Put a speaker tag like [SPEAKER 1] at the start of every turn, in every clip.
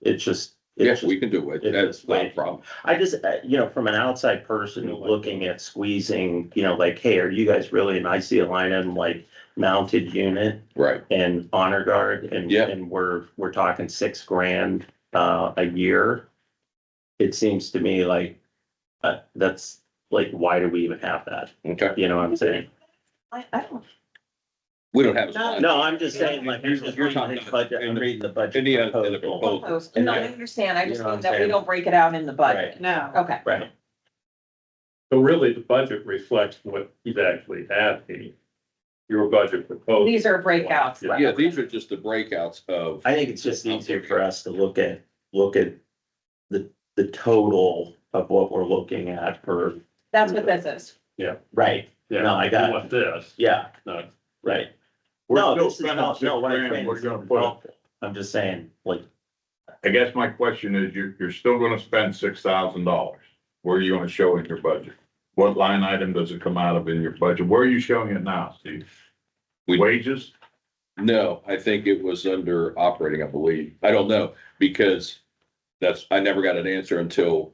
[SPEAKER 1] It's just. it's
[SPEAKER 2] Yes,
[SPEAKER 1] just-
[SPEAKER 2] we can do it.
[SPEAKER 1] it's
[SPEAKER 2] That's
[SPEAKER 1] just
[SPEAKER 2] not a
[SPEAKER 1] way-
[SPEAKER 2] problem.
[SPEAKER 1] I just, uh, you know, from an outside person looking at squeezing, you know, like, hey, are you guys really an IC aligned like mounted unit
[SPEAKER 2] Right.
[SPEAKER 1] and honor guard and,
[SPEAKER 2] Yeah.
[SPEAKER 1] and we're, we're talking six grand, uh, a year? It seems to me like, uh, that's like, why do we even have that?
[SPEAKER 2] Okay.
[SPEAKER 1] You know what I'm saying?
[SPEAKER 3] I, I don't,
[SPEAKER 2] We don't have. a
[SPEAKER 3] No,
[SPEAKER 2] slide.
[SPEAKER 1] No, I'm just saying, like, I'm
[SPEAKER 2] You're-
[SPEAKER 1] just
[SPEAKER 2] you're
[SPEAKER 1] reading
[SPEAKER 2] talking
[SPEAKER 1] the budget, I'm
[SPEAKER 2] in the-
[SPEAKER 1] reading the budget.
[SPEAKER 2] in the, uh, in the
[SPEAKER 1] proposal.
[SPEAKER 2] proposal.
[SPEAKER 3] propose- no, I
[SPEAKER 1] Yeah.
[SPEAKER 3] understand, I
[SPEAKER 1] You
[SPEAKER 3] just
[SPEAKER 1] know what
[SPEAKER 3] mean
[SPEAKER 1] I'm
[SPEAKER 3] that we
[SPEAKER 1] saying?
[SPEAKER 3] don't break it out in the budget.
[SPEAKER 4] No.
[SPEAKER 3] Okay,
[SPEAKER 1] Right,
[SPEAKER 5] So really, the budget reflects what he's actually asking. Your budget proposal.
[SPEAKER 3] these are breakouts.
[SPEAKER 5] Yeah.
[SPEAKER 2] Yeah, these are just the breakouts of,
[SPEAKER 1] I think it's just easier for us to look at, look at the, the total of what we're looking at for,
[SPEAKER 3] That's what this is.
[SPEAKER 1] right,
[SPEAKER 5] Yeah,
[SPEAKER 1] No, I got it.
[SPEAKER 5] What this,
[SPEAKER 1] yeah,
[SPEAKER 5] no,
[SPEAKER 1] right.
[SPEAKER 6] We're
[SPEAKER 1] No,
[SPEAKER 6] still
[SPEAKER 1] this is
[SPEAKER 6] spending
[SPEAKER 1] not, no,
[SPEAKER 6] six
[SPEAKER 1] what I'm
[SPEAKER 6] grand.
[SPEAKER 1] saying
[SPEAKER 6] We're
[SPEAKER 1] is
[SPEAKER 6] gonna put it-
[SPEAKER 1] helpful. I'm just saying, like,
[SPEAKER 6] I guess my question is, you're, you're still gonna spend six thousand dollars. Where are you gonna show in your budget? What line item does it come out of in your budget? Where are you showing it now, Steve?
[SPEAKER 2] We-
[SPEAKER 6] Wages?
[SPEAKER 2] no, I think it was under operating, I believe. I don't know, because that's, I never got an answer until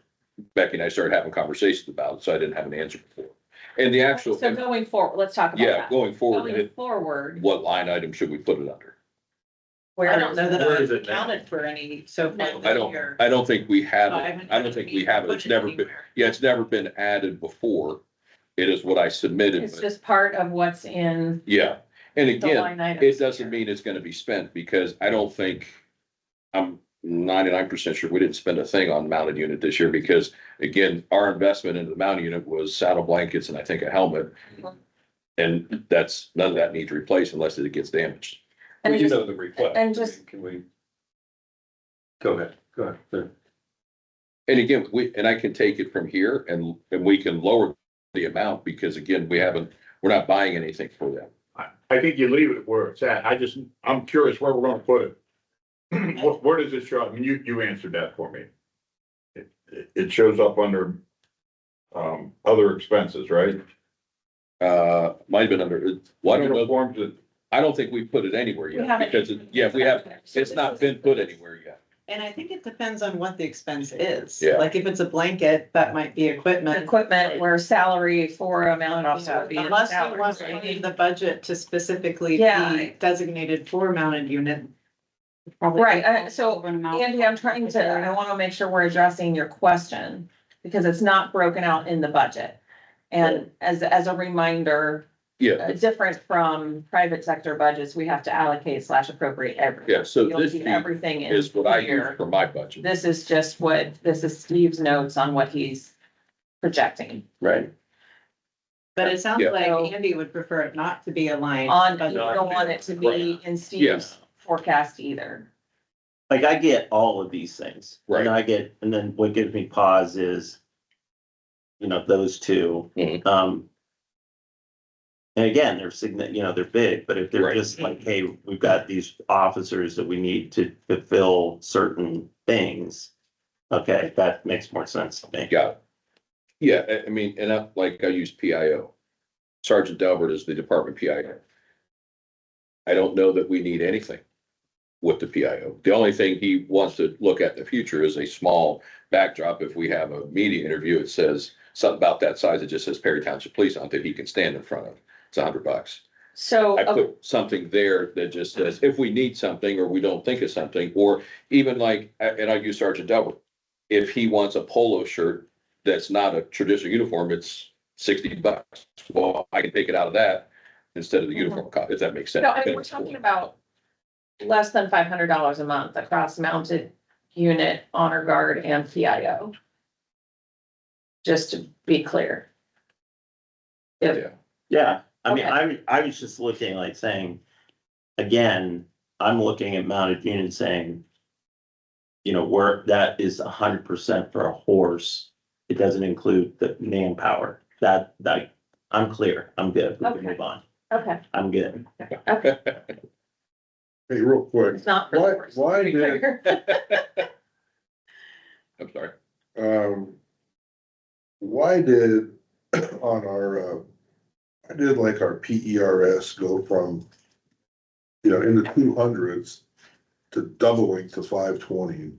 [SPEAKER 2] Becky and I started having conversations about it, so I didn't have an answer before. And the actual,
[SPEAKER 3] So going forward, let's talk
[SPEAKER 2] yeah,
[SPEAKER 3] about that.
[SPEAKER 2] going
[SPEAKER 3] Going
[SPEAKER 2] forward,
[SPEAKER 3] forward,
[SPEAKER 2] what line item should we put it under?
[SPEAKER 3] where.
[SPEAKER 4] I don't know that
[SPEAKER 5] Where is it
[SPEAKER 4] I've
[SPEAKER 5] now?
[SPEAKER 4] counted for any so far
[SPEAKER 3] No.
[SPEAKER 2] I
[SPEAKER 4] this
[SPEAKER 2] don't,
[SPEAKER 4] year.
[SPEAKER 2] I don't think we have
[SPEAKER 4] So I
[SPEAKER 2] it.
[SPEAKER 4] haven't
[SPEAKER 2] I don't think we have it. It's
[SPEAKER 4] put
[SPEAKER 2] never been,
[SPEAKER 4] anywhere.
[SPEAKER 2] yeah, it's never been added before. It is what I submitted,
[SPEAKER 3] It's
[SPEAKER 2] but-
[SPEAKER 3] just part of what's in
[SPEAKER 2] yeah. And
[SPEAKER 3] the
[SPEAKER 2] again,
[SPEAKER 3] line item.
[SPEAKER 2] It doesn't mean it's gonna be spent, because I don't think, I'm ninety-nine percent sure we didn't spend a thing on mounted unit this year, because again, our investment into the mounted unit was saddle blankets and I think a helmet.
[SPEAKER 3] Mhm.
[SPEAKER 2] And that's, none of that needs replaced unless it gets damaged.
[SPEAKER 3] And
[SPEAKER 5] we do
[SPEAKER 3] just-
[SPEAKER 5] know the request.
[SPEAKER 3] and just-
[SPEAKER 5] Can we? Go ahead, go ahead. Sure.
[SPEAKER 2] And again, we, and I can take it from here and, and we can lower the amount, because again, we haven't, we're not buying anything for them.
[SPEAKER 6] I, I think you leave it where it's at. I just, I'm curious where we're gonna put it. Where, where does it show? I mean, you, you answered that for me. It, it- it shows up under, um, other expenses, right?
[SPEAKER 2] Uh, might have been under, well, I don't know,
[SPEAKER 6] Uniforms that-
[SPEAKER 2] I don't think we put it anywhere
[SPEAKER 3] We haven't-
[SPEAKER 2] yet, because, it- yeah, we have,
[SPEAKER 3] So
[SPEAKER 2] it's
[SPEAKER 3] this
[SPEAKER 2] not
[SPEAKER 3] is-
[SPEAKER 2] been put anywhere yet.
[SPEAKER 4] And I think it depends on what the expense is.
[SPEAKER 2] Yeah.
[SPEAKER 4] Like if it's a blanket, that might be equipment.
[SPEAKER 3] Equipment where salary for a mounted officer
[SPEAKER 4] Yeah,
[SPEAKER 3] would be in
[SPEAKER 4] Unless you
[SPEAKER 3] salary.
[SPEAKER 4] want to leave the budget to specifically
[SPEAKER 3] Yeah.
[SPEAKER 4] be designated for mounted unit. probably
[SPEAKER 3] Right,
[SPEAKER 4] don't
[SPEAKER 3] uh, so
[SPEAKER 4] over an amount.
[SPEAKER 3] Andy, I'm trying to, I wanna make sure we're addressing your question, because it's not broken out in the budget. And as, as a reminder,
[SPEAKER 2] Yeah,
[SPEAKER 3] uh, different from private sector budgets, we have to allocate slash appropriate every.
[SPEAKER 2] yeah, so
[SPEAKER 3] You'll
[SPEAKER 2] this
[SPEAKER 3] see
[SPEAKER 2] sheet
[SPEAKER 3] everything in
[SPEAKER 2] is what I use
[SPEAKER 3] here.
[SPEAKER 2] for my budget,
[SPEAKER 3] This is just what, this is Steve's notes on what he's projecting
[SPEAKER 2] right?
[SPEAKER 4] But it sounds
[SPEAKER 2] Yeah.
[SPEAKER 4] like
[SPEAKER 3] So-
[SPEAKER 4] Andy would prefer it not to be aligned.
[SPEAKER 3] on,
[SPEAKER 4] but-
[SPEAKER 3] you don't want it to be in Steve's
[SPEAKER 2] Yes.
[SPEAKER 3] forecast either.
[SPEAKER 1] like I get all of these things.
[SPEAKER 2] Right.
[SPEAKER 1] And I get, and then what gives me pause is, you know, those two.
[SPEAKER 2] Mhm.
[SPEAKER 1] Um. And again, they're signi- you know, they're big, but if they're
[SPEAKER 2] Right.
[SPEAKER 1] just like, hey, we've got these officers that we need to fulfill certain things. Okay, that makes more sense to me.
[SPEAKER 2] Got it. Yeah, I, I mean, and I, like, I use PIO. Sergeant Delbert is the department PIO. I don't know that we need anything with the PIO. The only thing he wants to look at in the future is a small backdrop. If we have a media interview, it says something about that size. It just says Perry Township Police on it that he can stand in front of. It's a hundred bucks.
[SPEAKER 3] So.
[SPEAKER 2] I put something there that just says, if we need something, or we don't think of something, or even like, and I use Sergeant Delbert. If he wants a polo shirt that's not a traditional uniform, it's sixty bucks. Well, I can take it out of that instead of the uniform cost, if that makes sense.
[SPEAKER 3] Mm-hmm. No, I mean, we're talking about less than five hundred dollars a month across mounted unit, honor guard and PIO. Just to be clear.
[SPEAKER 2] Yeah,
[SPEAKER 1] Yeah, I mean,
[SPEAKER 3] Okay.
[SPEAKER 1] I, I was just looking like saying, again, I'm looking at mounted unit saying. You know, where that is a hundred percent for a horse, it doesn't include the manpower, that, that, I'm clear, I'm good, we can
[SPEAKER 3] Okay.
[SPEAKER 1] move on,
[SPEAKER 3] Okay,
[SPEAKER 1] I'm good.
[SPEAKER 3] okay,
[SPEAKER 6] Hey, real quick,
[SPEAKER 3] it's not. for the
[SPEAKER 6] Why-
[SPEAKER 3] horse,
[SPEAKER 6] why
[SPEAKER 3] to be
[SPEAKER 6] did-
[SPEAKER 3] clear.
[SPEAKER 2] I'm sorry.
[SPEAKER 6] um, why did on our, uh, I did like our P E R S go from, you know, in the two hundreds to doubling to five twenty